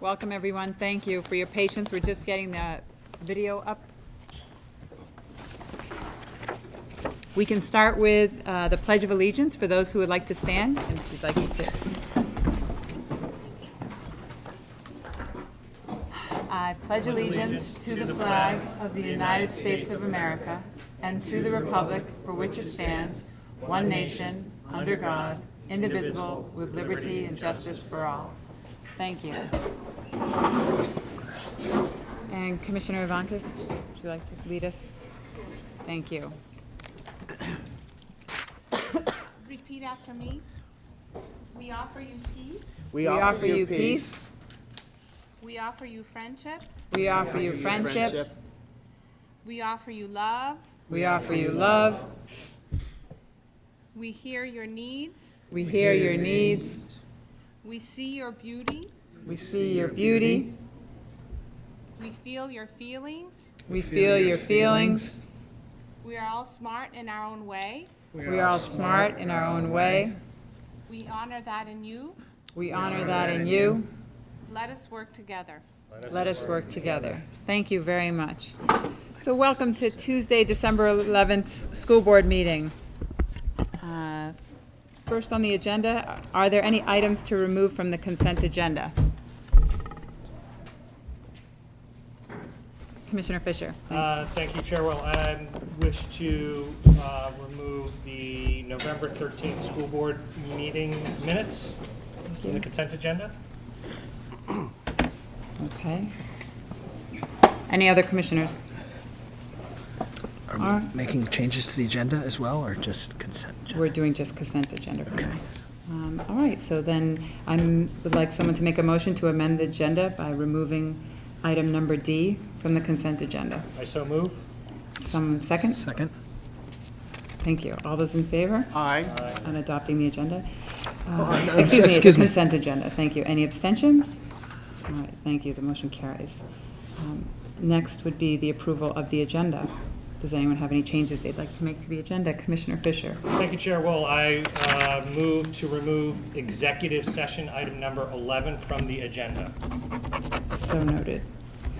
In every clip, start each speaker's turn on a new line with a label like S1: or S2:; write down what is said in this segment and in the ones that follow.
S1: Welcome, everyone. Thank you for your patience. We're just getting the video up. We can start with uh, the Pledge of Allegiance for those who would like to stand and if you'd like to sit. I pledge allegiance to the flag of the United States of America and to the republic for which it stands, one nation, under God, indivisible, with liberty and justice for all. Thank you. And Commissioner Ivanka, would you like to lead us? Thank you.
S2: Repeat after me. We offer you peace.
S1: We offer you peace,
S2: We offer you friendship.
S1: we offer you friendship,
S2: We offer you love.
S1: we offer you love,
S2: We hear your needs.
S1: we hear your needs,
S2: We see your beauty.
S1: we see your beauty,
S2: We feel your feelings.
S1: we feel your feelings,
S2: We are all smart in our own way.
S1: We are all smart in our own way.
S2: We honor that in you.
S1: We honor that in you.
S2: Let us work together.
S1: Let us work together. Thank you very much. So welcome to Tuesday, December 11th, 's school board meeting. Uh, First on the agenda, are there any items to remove from the consent agenda? Commissioner Fisher, thanks.
S3: Uh, Thank you, Chair. Well, I wish to uh, remove the November 13th school board meeting minutes from the consent agenda.
S1: Okay. Any other commissioners?
S4: Are we making changes to the agenda as well, or just consent? agenda?
S1: We're doing just consent agenda. for now.
S4: Okay.
S1: Um, All right, so then I would like someone to make a motion to amend the agenda by removing item number D from the consent agenda.
S3: I so move.
S1: Someone second?
S4: Second?
S1: Thank you. All those in favor
S5: Aye.
S1: on adopting the agenda?
S4: Oh,
S1: Uh,
S4: no,
S1: Excuse me, the
S4: excuse me.
S1: consent agenda, thank you. Any abstentions? All right, thank you, the motion carries. Um, Next would be the approval of the agenda. Does anyone have any changes they'd like to make to the agenda? Commissioner Fisher?
S3: Thank you, Chair. Well, I uh, move to remove executive session item number 11 from the agenda.
S1: So noted.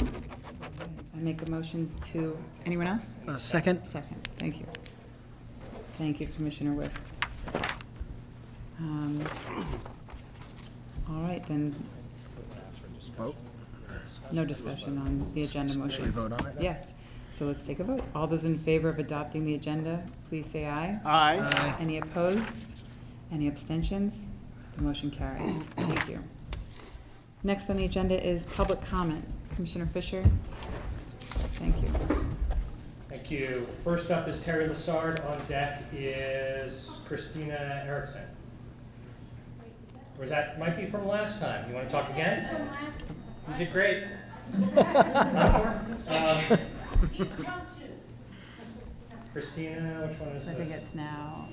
S1: I make a motion to, anyone else?
S4: Uh, Second?
S1: Second, thank you. Thank you, Commissioner Whip. Um, All right, then,
S4: Vote?
S1: no discussion on the agenda
S4: Should we
S1: motion.
S4: vote on it?
S1: Yes, so let's take a vote. All those in favor of adopting the agenda, please say aye.
S5: Aye.
S4: Aye.
S1: Any opposed? Any abstentions? The motion carries. Thank you. Next on the agenda is public comment. Commissioner Fisher? Thank you.
S3: Thank you. First up is Terry Lassard. On deck is Christina Erickson. Or is that, might be from last time. You want to talk again? You did great. Um, Christina, which one is
S1: So I think
S3: this?
S1: it's now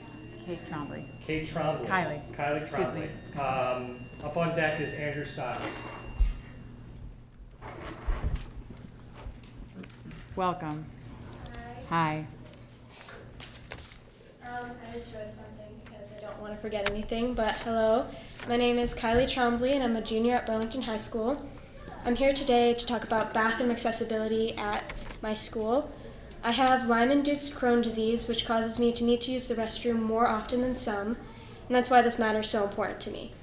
S1: Kate Trombley.
S3: Kate Trombley.
S1: Kylie.
S3: Kylie
S1: Excuse me.
S3: Trombley. Um, Up on deck is Andrew Stiles.
S1: Welcome. Hi.
S6: Um, I just wrote something because I don't want to forget anything, but hello. My name is Kylie Trombley and I'm a junior at Burlington High School. I'm here today to talk about bathroom accessibility at my school. I have Lyme induced Crohn disease, which causes me to need to use the restroom more often than some, and that's why this matter is so important to me.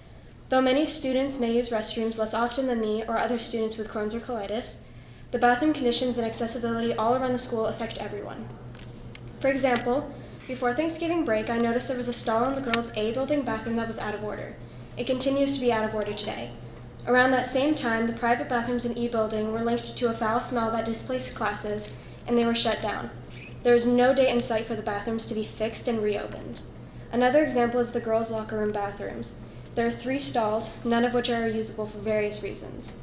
S6: Though many students may use restrooms less often than me or other students with Crohn's or colitis, the bathroom conditions and accessibility all around the school affect everyone. For example, before Thanksgiving break, I noticed there was a stall in the girls' A building bathroom that was out of order. It continues to be out of order today. Around that same time, the private bathrooms in E building were linked to a foul smell that displaced classes, and they were shut down. There is no date in sight for the bathrooms to be fixed and reopened. Another example is the girls' locker room bathrooms. There are three stalls, none of which are usable for various reasons.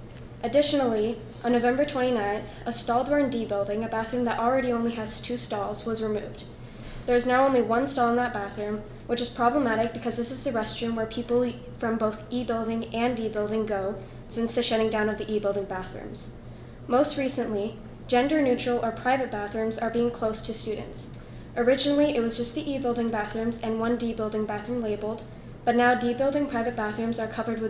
S6: Additionally, on November 29th, a stall door in D building, a bathroom that already only has two stalls, was removed. There is now only one stall in that bathroom, which is problematic because this is the restroom where people from both E building and D building go since the shutting down of the E building bathrooms. Most recently, gender neutral or private bathrooms are being closed to students. Originally, it was just the E building bathrooms and one D building bathroom labeled, but now D building private bathrooms are covered with